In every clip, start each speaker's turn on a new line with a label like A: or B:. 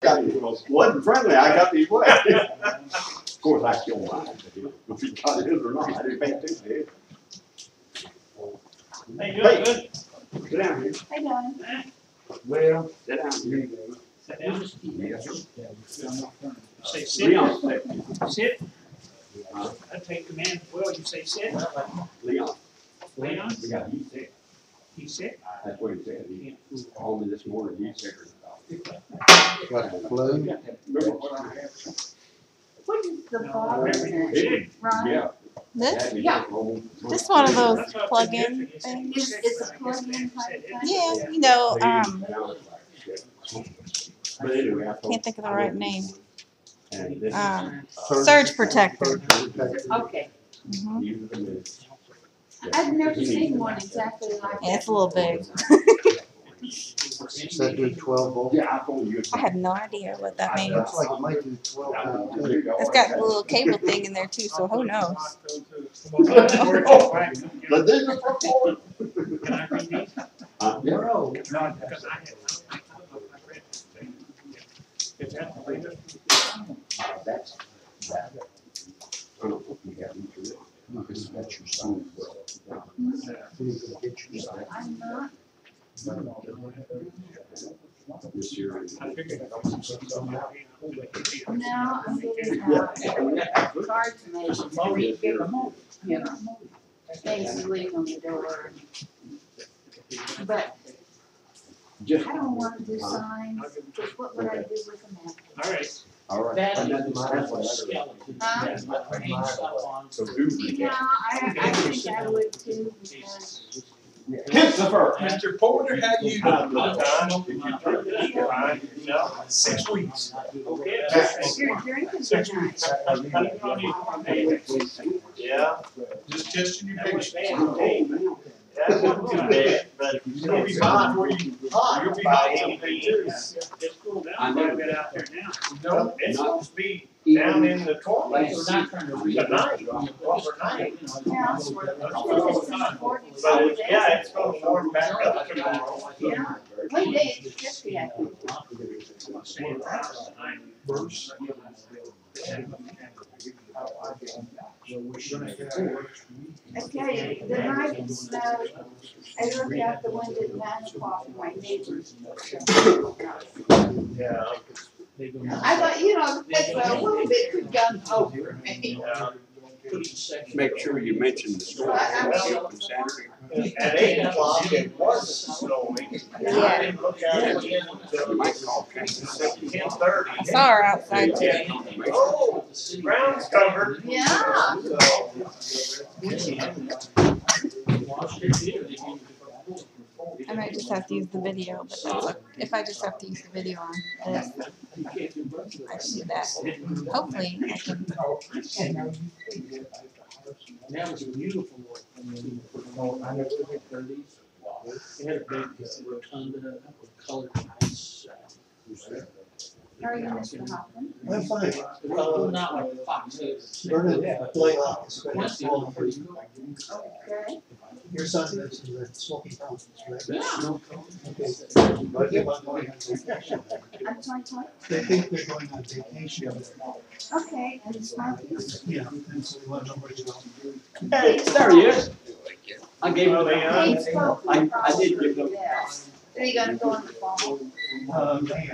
A: got it, well, it wasn't friendly, I got these way. Of course, I still mine, if he got his or not, I didn't pay attention to it.
B: Hey, you doing good?
A: Sit down here,
C: Hey, Don.
D: Well,
A: sit down here.
B: Sit down.
D: yes, sir.
B: Say sit.
A: Leon, sit.
B: Sit. I take command. Well, you say sit.
A: Leon,
B: Leon,
A: we got heat sick,
B: he sit.
A: that's what he said, he called me this morning, heat sick.
D: Got a flu?
A: Remember what I had?
C: What is the
B: No,
C: bottom?
B: remember,
C: Is
B: sit.
C: Ron?
A: Yeah.
E: This?
C: Yeah.
E: Just one of those
B: That's what I
E: plug-in
B: took it for. You
C: Is-
B: said
C: is a
B: sit, but I guess
C: plug-in
B: they haven't
C: type
B: said it.
C: thing?
E: Yeah, you know, um,
A: But anyway, I
E: Can't think of the right name.
A: And this is-
E: Um, surge protector.
C: Okay,
E: Mhm.
C: I've never seen one exactly like
E: Yeah,
C: that.
E: it's a little big.
D: Said do twelve volt.
A: Yeah, I told you.
E: I have no idea what that means.
D: That's like making twelve volt. too.
E: It's
A: It's
E: got a little cable thing in there too, so who knows?
A: But this is for four.
B: Can I read these?
A: Uh, yeah.
D: No, not that.
B: Because I had- I don't know if I read this thing. Is that the latest?
A: Uh, That's. that. I don't know if we have them through it. Because that's your sign.
D: You can get your side.
C: I'm not,
A: This year.
B: I figured that was something.
C: now I'm getting,
A: Yeah. Oh,
C: uh, cards made, you know, things you leave on the door. But I
A: Just.
C: don't want to do signs, because what would I do with a map?
B: All right.
A: All right.
F: That
A: And
F: is
A: that's my- that's what I-
C: Huh?
F: That's my brain stuff on.
A: So do read
C: Yeah,
A: that.
C: I, I think I would too, because
A: Christopher.
G: Mr. Porter, how you
A: Time,
B: Fine. No.
G: Six weeks.
B: Okay.
C: you're drinking tonight.
G: Yeah. Just testing your
B: That was
G: patience.
B: bad. Hey,
G: That
B: wasn't too bad,
G: but
B: you'll be
A: fine
G: where you, you'll be hot someday too.
B: It's cooled down quite a bit out there now.
G: No, it's supposed to be down in the
F: They're
G: twenties
F: not trying to read.
G: tonight, overnight.
C: Yeah.
G: But it's, yeah, it's gonna warm back up tomorrow.
C: Yeah, one day it's fifty, I think.
B: Same house tonight.
C: I tell you, the night it snowed, I looked out the window at nine o'clock, and my neighbors.
G: Yeah.
C: I thought, you know, that's a little bit could Oh, come over me.
A: Make sure you mention the story.
G: At eight o'clock, it was snowing. I didn't look out again
A: You
G: until
A: might call Kansas City.
G: ten thirty.
E: I saw her outside
A: Yeah,
E: today.
A: confirmation.
G: Oh, ground's covered.
C: Yeah.
G: So,
E: I might just have to use the video, but that's, if I just have to use the video on this, I can do that. Hopefully, I can
F: That was beautiful. They had a big rotunda, colored lights.
C: Are you Mr. Hoffman?
D: I'm fine.
F: Well, not like Fox.
D: Turn it, play off. It's better.
F: Once you all pretty.
C: Okay.
D: Your son lives in the smoky mountains, right?
F: Yeah.
C: I'm twenty twenty.
D: They think they're going on vacation.
C: Okay, and it's my piece.
D: Yeah, and so we want nobody to know.
G: Hey,
F: There he is. I gave him.
G: Well,
F: the-
C: They spoke
F: I- I
C: from across
F: did give
C: the
F: them-
C: desk. Are you gonna go in the fall?
D: Uh, May,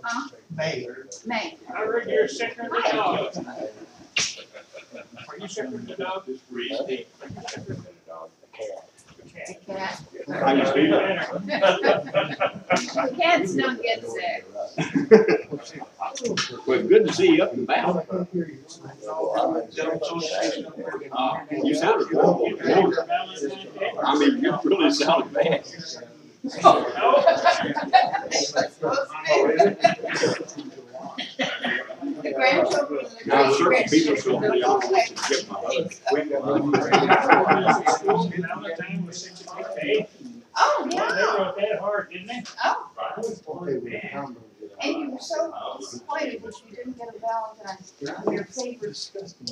C: Huh?
D: May.
C: May.
B: I heard you're sicker than the dog. Are you sicker than the dog?
G: Reasoning.
C: The
B: Okay.
C: cat.
A: I just do that.
C: The cats don't get sick.
A: Well, good to see you up and
D: I
A: about.
D: can't hear you.
A: Uh, You sounded horrible. I mean, you really sounded bad.
C: The grandchildren. the
A: Now, certain
C: great-grandchildren
A: people should be
C: don't
A: honest
C: get
A: and get my.
C: sick.
A: husband.
G: Well,
C: Oh,